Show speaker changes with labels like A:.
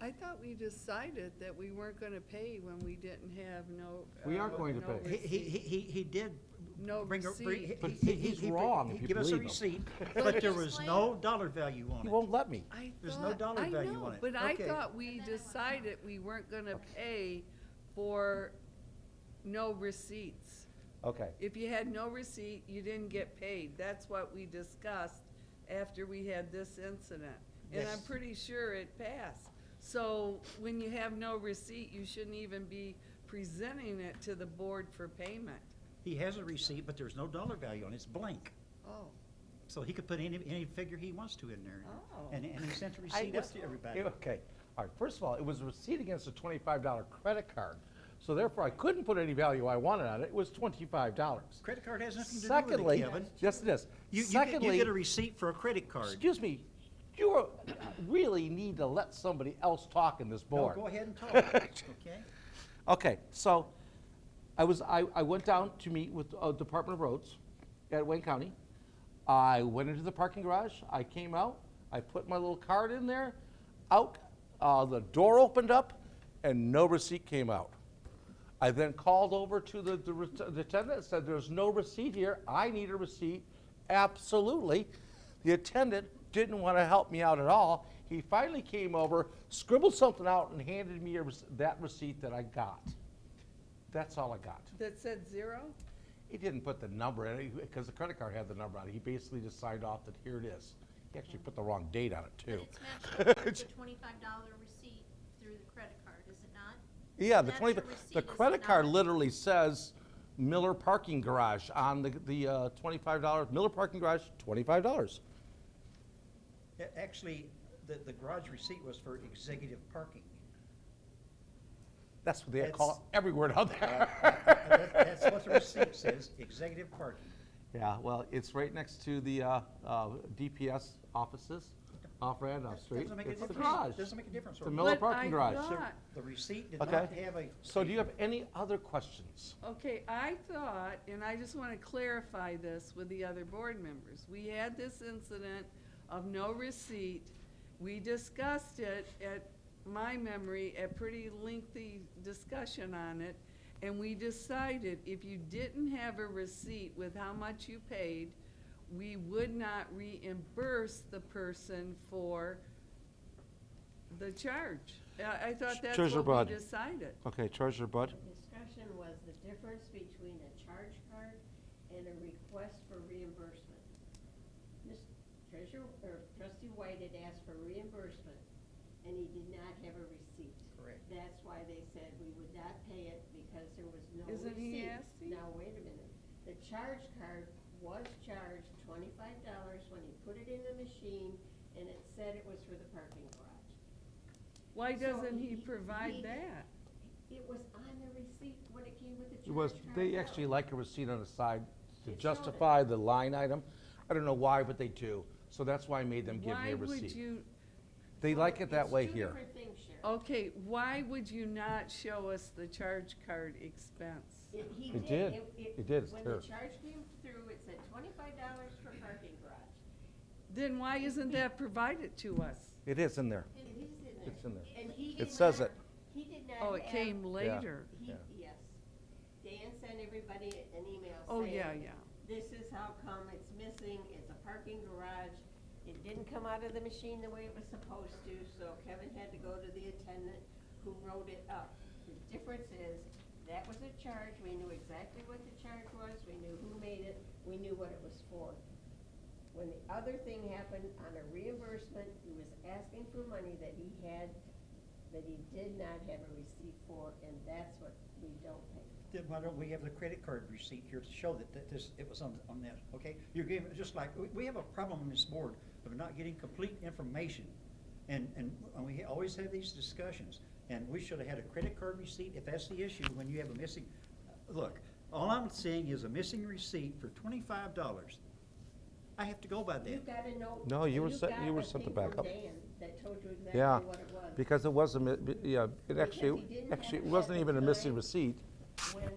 A: I thought we decided that we weren't gonna pay when we didn't have no.
B: We are
A: uh,
B: going to
A: no
B: pay.
A: rece-
C: He, he, he, he- he did.
A: No
C: bring a- bring-
A: receipt.
B: But
C: he- he- he-
B: he's
C: he-
B: wrong
C: he
B: if you
C: Give us a
B: believe him.
C: receipt, but there was no dollar value
B: He
C: on it.
B: won't let me.
A: I
C: There's no
A: thought-
C: dollar
A: I
C: value
A: know,
C: on it.
A: But I
C: Okay.
A: thought we
D: And then I want-
A: decided we weren't gonna pay for no receipts.
B: Okay.
A: If you had no receipt, you didn't get paid. That's what we discussed after we had this incident. And I'm
C: Yes.
A: pretty sure it passed. So when you have no receipt, you shouldn't even be presenting it to the board for payment.
C: He has a receipt, but there's no dollar value on it, it's blank.
A: Oh,
C: So he could put any, any figure he wants to in there.
A: Oh.
C: And, and he sent a
B: I
C: receipt out
B: was-
C: to everybody.
B: yeah, Okay, all right, first of all, it was a receipt against a twenty-five dollar credit card, so therefore I couldn't put any value I wanted on it, it was twenty-five dollars.
C: Credit card has nothing to do with it,
B: Secondly,
C: Kevin.
B: yes it is.
C: You, you get, you
B: Secondly,
C: get a receipt for a credit card.
B: excuse me, you are- really need to let somebody else talk in this
C: No,
B: board.
C: go ahead and talk, okay?
B: Okay, so I was, I, I went down to meet with uh, Department of Roads at Wayne County. I went into the parking garage, I came out, I put my little card in there, out, uh, the door opened up, and no receipt came out. I then called over to the, the re- the attendant, and said, there's no receipt here, I need a receipt, absolutely. The attendant didn't want to help me out at all. He finally came over, scribbled something out, and handed me a rec- that receipt that I got. That's all I got.
A: that said zero?
B: He didn't put the number in it, because the credit card had the number on it. He basically just signed off that here it is. He actually put the wrong date on it,
D: But
B: too.
D: it's matched the twenty-five dollar receipt through the credit card, is it not?
B: Yeah, the
D: That's
B: twenty,
D: your receipt,
B: the
D: is it
B: credit card
D: not?
B: literally says Miller Parking Garage on the, the uh, twenty-five dollars, Miller Parking Garage, twenty-five dollars.
C: A- Actually, the, the garage receipt was for executive parking.
B: That's what they call it everywhere down
C: That- that-
B: there.
C: That's what the receipt says, executive parking.
B: Yeah, well, it's right next to the, uh, uh, DPS offices off Randolph Street.
C: Doesn't make a
B: It's the
C: difference.
B: garage.
C: Doesn't make a difference.
B: It's a Miller
A: But I
B: Parking Garage.
A: thought-
C: So The receipt did not
B: Okay.
C: have a.
B: So do you have any other questions?
A: Okay, I thought, and I just want to clarify this with the other board members. We had this incident of no receipt. We discussed it at, my memory, a pretty lengthy discussion on it. And we decided if you didn't have a receipt with how much you paid, we would not reimburse the person for the charge. I, I thought that's
B: Treasurer
A: what
B: Bud.
A: we decided.
B: Okay, Treasurer Bud?
E: The discussion was the difference between a charge card and a request for reimbursement. Ms. Treasurer, or trustee White had asked for reimbursement, and he did not have a receipt.
C: Correct.
E: That's why they said we would not pay it because there was no receipt.
A: Isn't he asking?
E: Now, wait a minute. The charge card was charged twenty-five dollars when he put it in the machine, and it said it was for the parking garage.
A: Why
E: So
A: doesn't he
E: he-
A: provide
E: he-
A: that?
E: It was on the receipt when it came with the charge
B: It was,
E: card.
B: they actually like a receipt on the side to
E: It's
B: justify the line item. I don't know why, but they do. So that's why I made them give me
A: Why
B: a
A: would
B: receipt.
A: you,
B: They like it that way
E: It's two
B: here.
E: different things, Sharon.
A: okay, why would you not show us the charge card expense?
E: It- he
B: It did. It did. It's
E: When
B: terrible.
E: the charge came through, it said twenty-five dollars for parking garage.
A: Then why isn't that provided to us?
B: It is in there.
E: It is in there.
B: It's in there.
E: And he
B: It
E: did
B: says
E: not-
B: it.
E: He did not
A: Oh, it
E: have-
A: came later.
E: He,
B: Yeah.
E: yes. Dan sent everybody an email saying.
A: Oh, yeah, yeah.
E: This is how come it's missing, it's a parking garage, it didn't come out of the machine the way it was supposed to, so Kevin had to go to the attendant who wrote it up. The difference is, that was a charge, we knew exactly what the charge was, we knew who made it, we knew what it was for. When the other thing happened on a reimbursement, he was asking for money that he had, that he did not have a receipt for, and that's what we don't pay.
C: Then why don't we have the credit card receipt here to show that, that this, it was on, on that, okay? You're giving, just like, we, we have a problem on this board of not getting complete information. And, and, and we always have these discussions, and we should have had a credit card receipt if that's the issue, when you have a missing, look, all I'm seeing is a missing receipt for twenty-five dollars. I have to go by
E: You
C: that.
E: got a note.
B: No, you
E: and
B: were sent-
E: got
B: you were
E: a
B: sent
E: thing
B: the
E: from
B: backup.
E: Dan That told you
B: Yeah,
E: exactly what it was.
B: because it wasn't, yeah, it
E: Because he
B: actually,
E: didn't have
B: actually, it
E: it at
B: wasn't
E: the
B: even a missing
E: time.
B: receipt.
E: When